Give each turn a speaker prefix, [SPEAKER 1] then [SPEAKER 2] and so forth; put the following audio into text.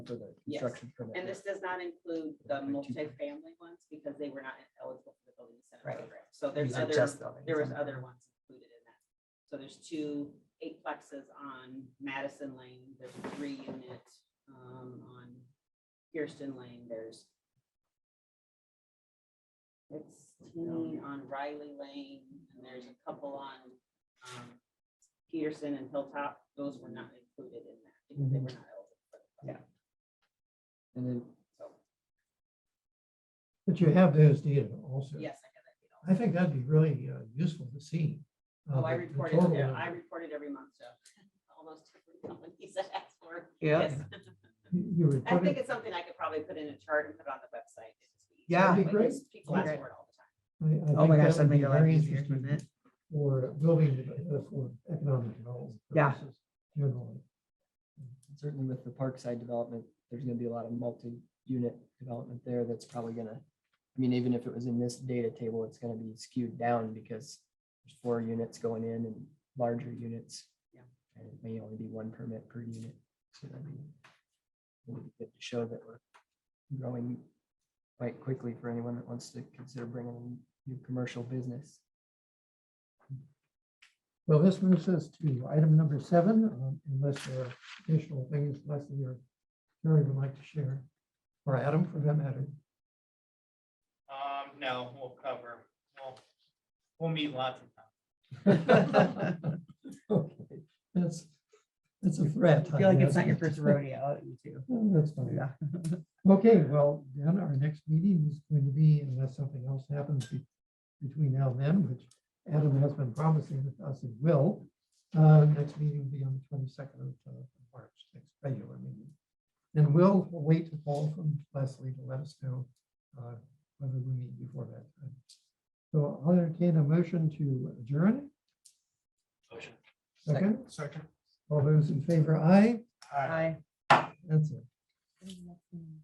[SPEAKER 1] for the
[SPEAKER 2] Yes.
[SPEAKER 1] construction permit.
[SPEAKER 2] And this does not include the
[SPEAKER 1] Like two-
[SPEAKER 2] multifamily ones because they were not eligible for the building
[SPEAKER 3] Right.
[SPEAKER 2] center program. So there's
[SPEAKER 3] These are
[SPEAKER 2] other,
[SPEAKER 3] just buildings.
[SPEAKER 2] there was other ones included in that. So there's two eight plexes on Madison Lane, there's a three unit um, on Kirsten Lane, there's sixteen on Riley Lane, and there's a couple on um, Peterson and Hilltop. Those were not included in that because they
[SPEAKER 3] Mm-hmm.
[SPEAKER 2] were not eligible for the program.
[SPEAKER 1] And then
[SPEAKER 2] So,
[SPEAKER 4] But you have those data also.
[SPEAKER 2] yes, I got that. you know.
[SPEAKER 4] I think that'd be really uh, useful to see. uh,
[SPEAKER 2] Oh, I
[SPEAKER 4] the- the
[SPEAKER 2] reported,
[SPEAKER 4] total
[SPEAKER 2] yeah,
[SPEAKER 4] of
[SPEAKER 2] I
[SPEAKER 4] it.
[SPEAKER 2] reported every month, so almost every company that asks for.
[SPEAKER 3] Yeah.
[SPEAKER 2] Yes.
[SPEAKER 4] You you
[SPEAKER 2] I think
[SPEAKER 4] reported,
[SPEAKER 2] it's something I could probably put in a chart and put on the website. It'd just be easier.
[SPEAKER 3] Yeah.
[SPEAKER 4] That'd be
[SPEAKER 2] Like,
[SPEAKER 4] great.
[SPEAKER 2] just People ask for it all the time.
[SPEAKER 4] I- I
[SPEAKER 3] Oh
[SPEAKER 4] think
[SPEAKER 3] my
[SPEAKER 4] that
[SPEAKER 3] gosh, that'd
[SPEAKER 4] would
[SPEAKER 3] make
[SPEAKER 4] be
[SPEAKER 3] your life
[SPEAKER 4] very
[SPEAKER 3] easier,
[SPEAKER 4] interesting
[SPEAKER 3] wouldn't it?
[SPEAKER 4] For building, uh, for economic development.
[SPEAKER 3] Yeah.
[SPEAKER 4] purposes Generally.
[SPEAKER 1] certainly with the Parkside development, there's gonna be a lot of multi-unit development there that's probably gonna, I mean, even if it was in this data table, it's gonna be skewed down because there's four units going in and larger units.
[SPEAKER 2] Yeah.
[SPEAKER 1] And it may only be one permit per unit. So that'd be it'd be good to show that we're growing quite quickly for anyone that wants to consider bringing in new commercial business.
[SPEAKER 4] Well, this moves us to item number seven, um, unless there are additional things Leslie or Jerry would like to share, or Adam for that matter.
[SPEAKER 5] Um, no, we'll cover, we'll, we'll meet lots of times.
[SPEAKER 4] Okay, That's, that's a threat.
[SPEAKER 3] I feel like it's
[SPEAKER 4] guess.
[SPEAKER 3] not your first rodeo, you two.
[SPEAKER 4] Oh, That's fine.
[SPEAKER 3] Yeah.
[SPEAKER 4] Okay, well, then our next meeting is going to be, unless something else happens be- between now and then, which Adam has been promising with us it will. Uh, next meeting will be on the twenty-second of uh, March, next regular meeting. And we'll wait to call from Leslie to let us know uh, whether we meet before that time. So I'll entertain a motion to adjourn.
[SPEAKER 5] Motion.
[SPEAKER 4] Second,
[SPEAKER 5] Second.
[SPEAKER 4] all those in favor, aye,
[SPEAKER 5] Aye.
[SPEAKER 3] Hi.
[SPEAKER 4] that's it.